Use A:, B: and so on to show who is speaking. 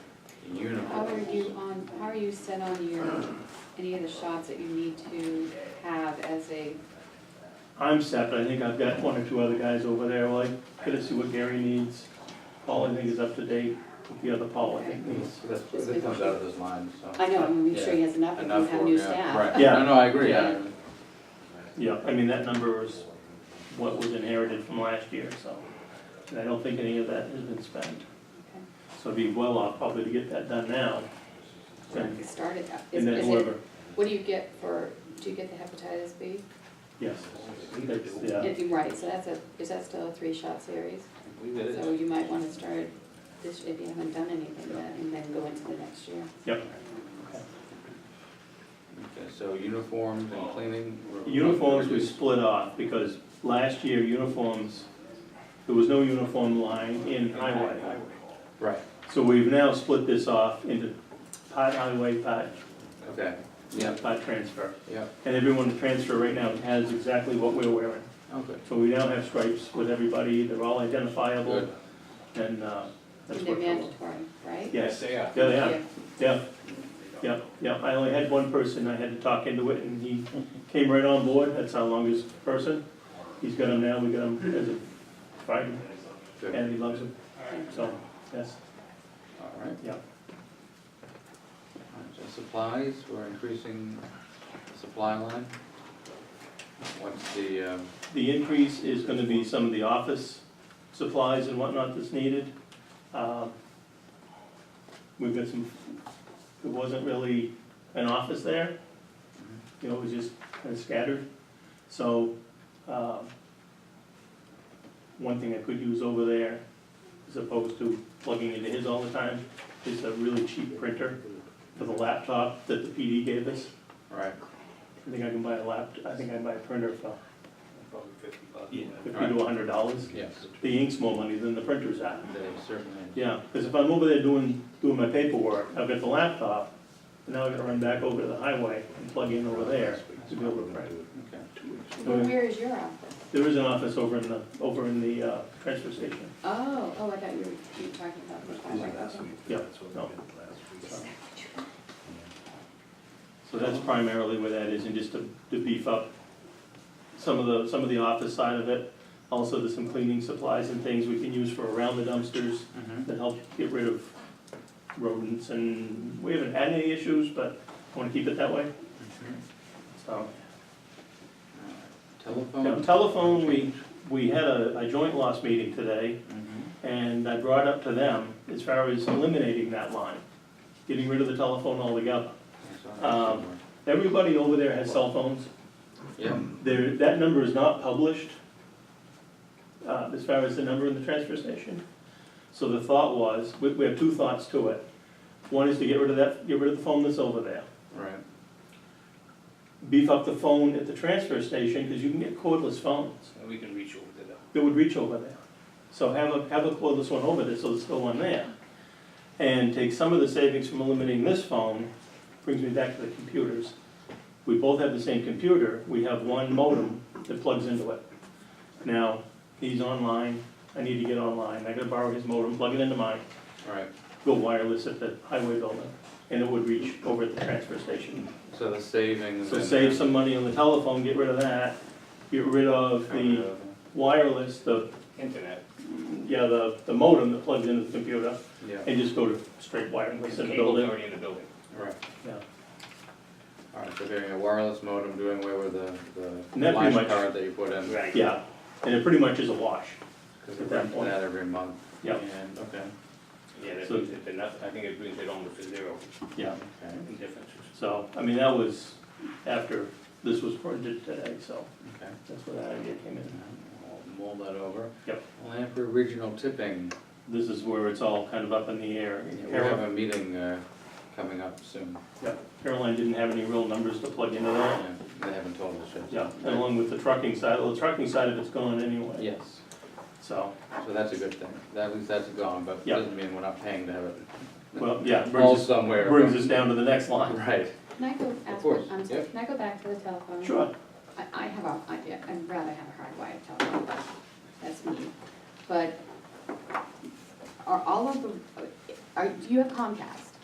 A: you on, how are you set on your, any of the shots that you need to have as a,
B: I'm set, but I think I've got one or two other guys over there, like, gonna see what Gary needs. Paul, I think, is up to date with the other Paul, I think, needs.
C: That's, that comes out of those lines, so.
A: I know, I'm gonna make sure he has enough if you
C: Enough
A: have
C: work,
A: new
C: yeah,
A: staff.
C: right.
B: Yeah.
C: No, no, I agree, yeah.
B: Yeah, I mean, that number is what was inherited from last year, so. And I don't think any of that has been spent. So it'd be well off probably to get that done now.
A: Okay.
B: And
A: Start it up. Is
B: and then
A: is it-
B: whoever,
A: What do you get for, do you get the hepatitis B?
B: yes, that's, yeah,
A: If you, right, so that's a, is that still a three-shot series?
C: We did
A: So you might wanna start this, if you haven't done anything yet, and then go into the next year.
B: yep.
C: Okay, so uniforms and cleaning. were-
B: Uniforms we split off, because last year uniforms, there was no uniform line in highway.
C: Right,
B: So we've now split this off into part highway, part,
C: okay, yeah,
B: part transfer.
C: yeah,
B: And everyone in transfer right now has exactly what we're wearing.
C: okay,
B: So we now have stripes with everybody, they're all identifiable,
C: good.
B: and uh, that's
A: And they're
B: worked out.
A: mandatory, right?
B: Yes,
C: they are.
B: yeah, they are, yeah, yeah, yeah, I only had one person, I had to talk into it, and he came right on board, that's our longest person. He's got him now, we got him as a Friday,
C: Good,
B: and he loves him, so, yes,
C: all right.
B: yeah.
C: All right, So supplies, we're increasing the supply line. What's the, um,
B: The increase is gonna be some of the office supplies and whatnot that's needed. Um, We've got some, it wasn't really an office there, you know, it was just kinda scattered. So, um, one thing I could use over there, as opposed to plugging into his all the time, is a really cheap printer for the laptop that the PD gave us.
C: right,
B: I think I can buy a lap, I think I can buy a printer for
D: Probably fifty bucks.
B: fifty to hundred dollars.
C: yes,
B: the ink's more money than the printer's at.
C: they certainly.
B: Yeah, because if I'm over there doing, doing my paperwork, I've got the laptop, and now I've got to run back over to the highway and plug in over there to be able to print.
C: Okay,
A: Well, Where is your office?
B: There is an office over in the, over in the uh, transfer station.
A: Oh, oh, I thought you were, you were talking about the highway.
B: Yeah, no. So that's primarily where that is, and just to, to beef up some of the, some of the office side of it. Also, there's some cleaning supplies and things we can use for around the dumpsters.
C: Mhm.
B: that help get rid of rodents, and we haven't had any issues, but I wanna keep it that way,
C: mm-hmm.
B: so.
C: All right.
B: Now,
C: Telephone.
B: telephone, we, we had a, a joint loss meeting today,
C: Mhm.
B: and I brought up to them, as far as eliminating that line, getting rid of the telephone altogether.
C: I saw that
B: Um,
C: somewhere.
B: Everybody over there has cell phones,
C: Yeah,
B: there, that number is not published, uh, as far as the number in the transfer station. So the thought was, we, we have two thoughts to it. One is to get rid of that, get rid of the phone that's over there.
C: right.
B: Beef up the phone at the transfer station, because you can get cordless phones
D: And we can reach over to them.
B: that would reach over there. So have a, have a cordless one over there, so there's still one there. And take some of the savings from eliminating this phone, brings me back to the computers. We both have the same computer, we have one modem that plugs into it. Now, he's online, I need to get online, I gotta borrow his modem, plug it into mine,
C: All right,
B: go wireless at the highway building, and it would reach over at the transfer station.
C: so the savings.
B: So
C: and-
B: save some money on the telephone, get rid of that, get rid of the wireless, the
D: Internet.
B: yeah, the, the modem that plugs into the computer,
C: Yeah,
B: and just go to straight wireless in the
D: Cable's
B: building.
D: Already in the building.
C: right.
B: Yeah.
C: All right, so getting a wireless modem, doing away with the,
B: And
C: the
B: that pretty
C: line
B: much-
C: card that you put in.
D: Right.
B: Yeah, and it pretty much is a wash.
C: Because we
B: At that
C: rent
B: point.
C: that every month.
B: Yeah.
C: And, okay,
D: Yeah, that
B: So-
D: brings it to nothing, I think it brings it almost to zero
B: Yeah.
C: okay,
D: in differences.
B: So, I mean, that was after this was printed today, so
C: okay.
B: that's where that idea came in.
C: I'll Mold that over.
B: Yep.
C: Lamprey Regional Tipping,
B: This is where it's all kind of up in the air.
C: we have
B: Caroline-
C: a meeting uh, coming up soon.
B: Caroline didn't have any real numbers to plug into that.
C: Yeah, They haven't told us yet.
B: Yeah, and along with the trucking side, well, the trucking side of it's gone anyway,
C: Yes,
B: so,
C: so that's a good thing. That means that's gone, but
B: Yeah.
C: doesn't mean we're not paying to have it
B: well, yeah,
C: all
B: brings us,
C: somewhere.
B: brings us down to the next
C: but-
B: line.
C: Right,
A: Can I go ask,
C: course,
A: I'm sorry,
C: yeah.
A: can I go back to the telephone?
B: Sure,
A: I, I have a, I, I'd rather have a hardwired telephone, but that's me. But are all of the, are, uh, do you have Comcast?